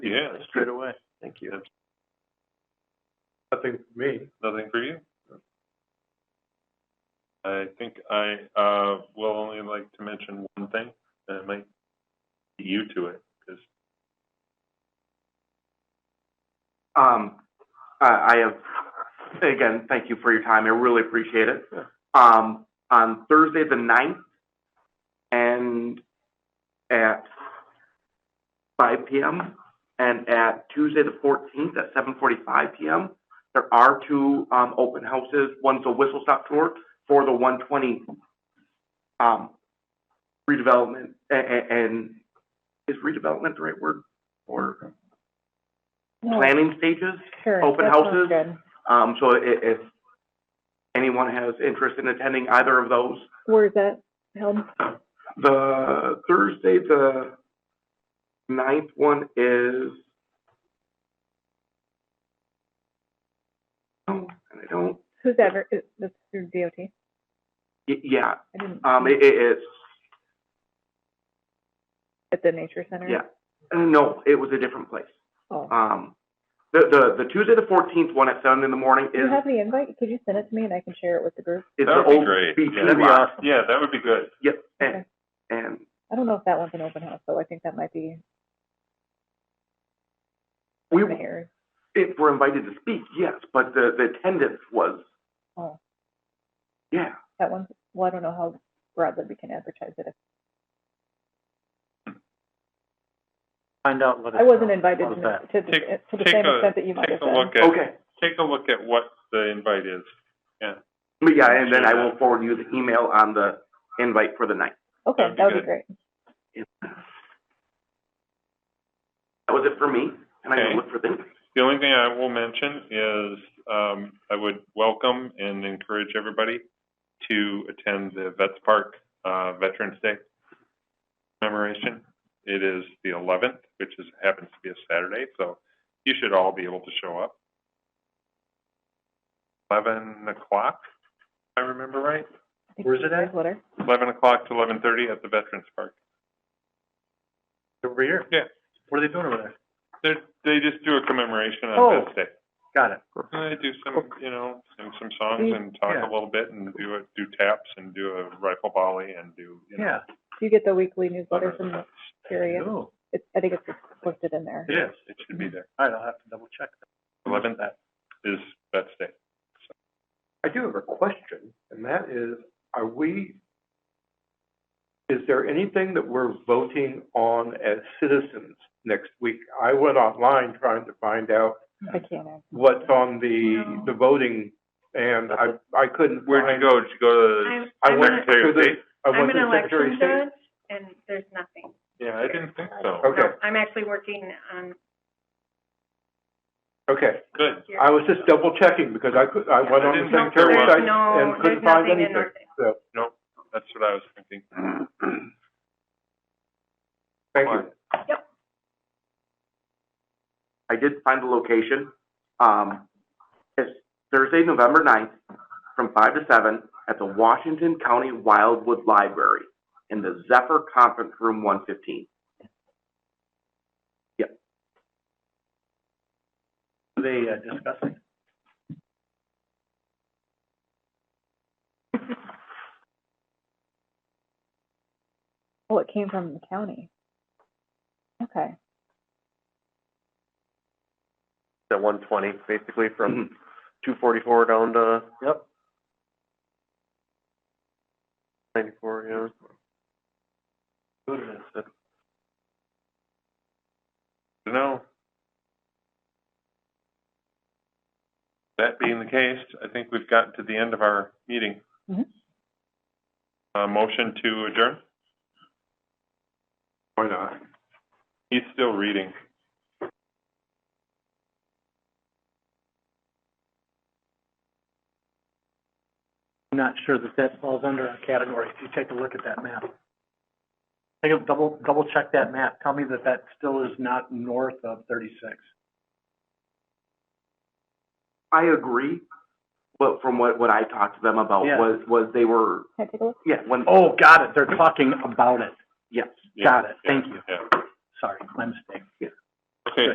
you. Yeah, straight away. Thank you. Nothing for me. Nothing for you? I think I, uh, will only like to mention one thing, and it might be you to it, because Um, I I have, again, thank you for your time. I really appreciate it. Um, on Thursday the ninth and at five PM and at Tuesday the fourteenth at seven forty-five PM, there are two, um, open houses. One's a whistle stop tour for the one twenty, um, redevelopment a- a- and is redevelopment the right word? Or planning stages? Sure, open that sounds houses. good. Um, so i- if anyone has interest in attending either of those, Where is that held? the Thursday, the ninth one is. Oh, and I don't, Who's ever, is- that's through DOT? I y- yeah, didn't. um, it, it- it's, At the nature center? yeah, Uh, no, it was a different place. Oh. Um, the, the, the Tuesday, the fourteenth one at seven in the morning Do you is, have the invite? Could you send it to me and I can share it with the group? is That the would be old great. beach Yeah, that'd be lot. Yeah, that would be good. Yep, and, Okay. and I don't know if that one's an open house, though. I think that might be we, mayor's. if we're invited to speak, yes, but the, the attendance was, Oh, yeah. that one's, well, I don't know how broadly we can advertise it. Find out what. I wasn't invited How's to, that? to the, Take- to the take same a- extent that you might have Take a been. look at, Okay, take a look at what the invite is. but yeah, and then I will forward you the email on the invite for the night. Okay, That'd be that would be good. great. That was it for me, and I Okay. can look for them. The only thing I will mention is, um, I would welcome and encourage everybody to attend the Vets Park, uh, Veterans Day commemoration. It is the eleventh, which is, happens to be a Saturday, so you should all be able to show up. Eleven o'clock, if I remember right, I think Where's it's it at? Letter. eleven o'clock to eleven thirty at the Veterans Park. Over here? Yeah. What are they doing over there? They they just do a commemoration Oh. on Vets Day. Got it. And they do some, you know, some, some songs Mm, and talk yeah. a little bit and do a, do taps and do a rifle volley and do, you know. Yeah. Do you get the weekly newsletter from the Curious? Oh, It's, I think it's listed in there. It is, it should be there. all right, I'll have to double check. that. Eleventh is Vets Day. I do have a question, and that is, are we, is there anything that we're voting on as citizens next week? I went online trying to find out I can't uh, answer. what's on the, the voting, and I, I couldn't Where'd you find. go? Did you go to I'm, I I'm the went an, Secretary of to the- State? I I'm went an to Secretary of election State. judge, and there's nothing. Yeah, I didn't think so. Okay. No, I'm actually working on, Okay, Good. here. I was just double checking because I could, I went on the Didn't know Secretary there was of State There's no- and couldn't there's find nothing in anything, North Bay. so, No, that's what I was thinking. thank you. I did find the location. Um, it's Thursday, November ninth, from five to seven at the Washington County Wildwood Library in the Zephyr Conference Room one fifteen. Are they uh, discussing? Well, it came from the county. Okay. At one twenty, basically from two forty-four down to Yep. ninety-four, yeah. No. That being the case, I think we've gotten to the end of our meeting. Mm-hmm. Mhm. Uh, motion to adjourn? Why not? He's still reading. I'm not sure that that falls under our category, if you take a look at that map. Take a double, double check that map, tell me that that still is not north of thirty-six. I agree, but from what, what I talked to them about Yeah. was, was they were, Can I take a look? yeah, when, Oh, got it, they're talking about it, yes. Yeah, got it, yeah, thank you, Yeah. sorry, my mistake.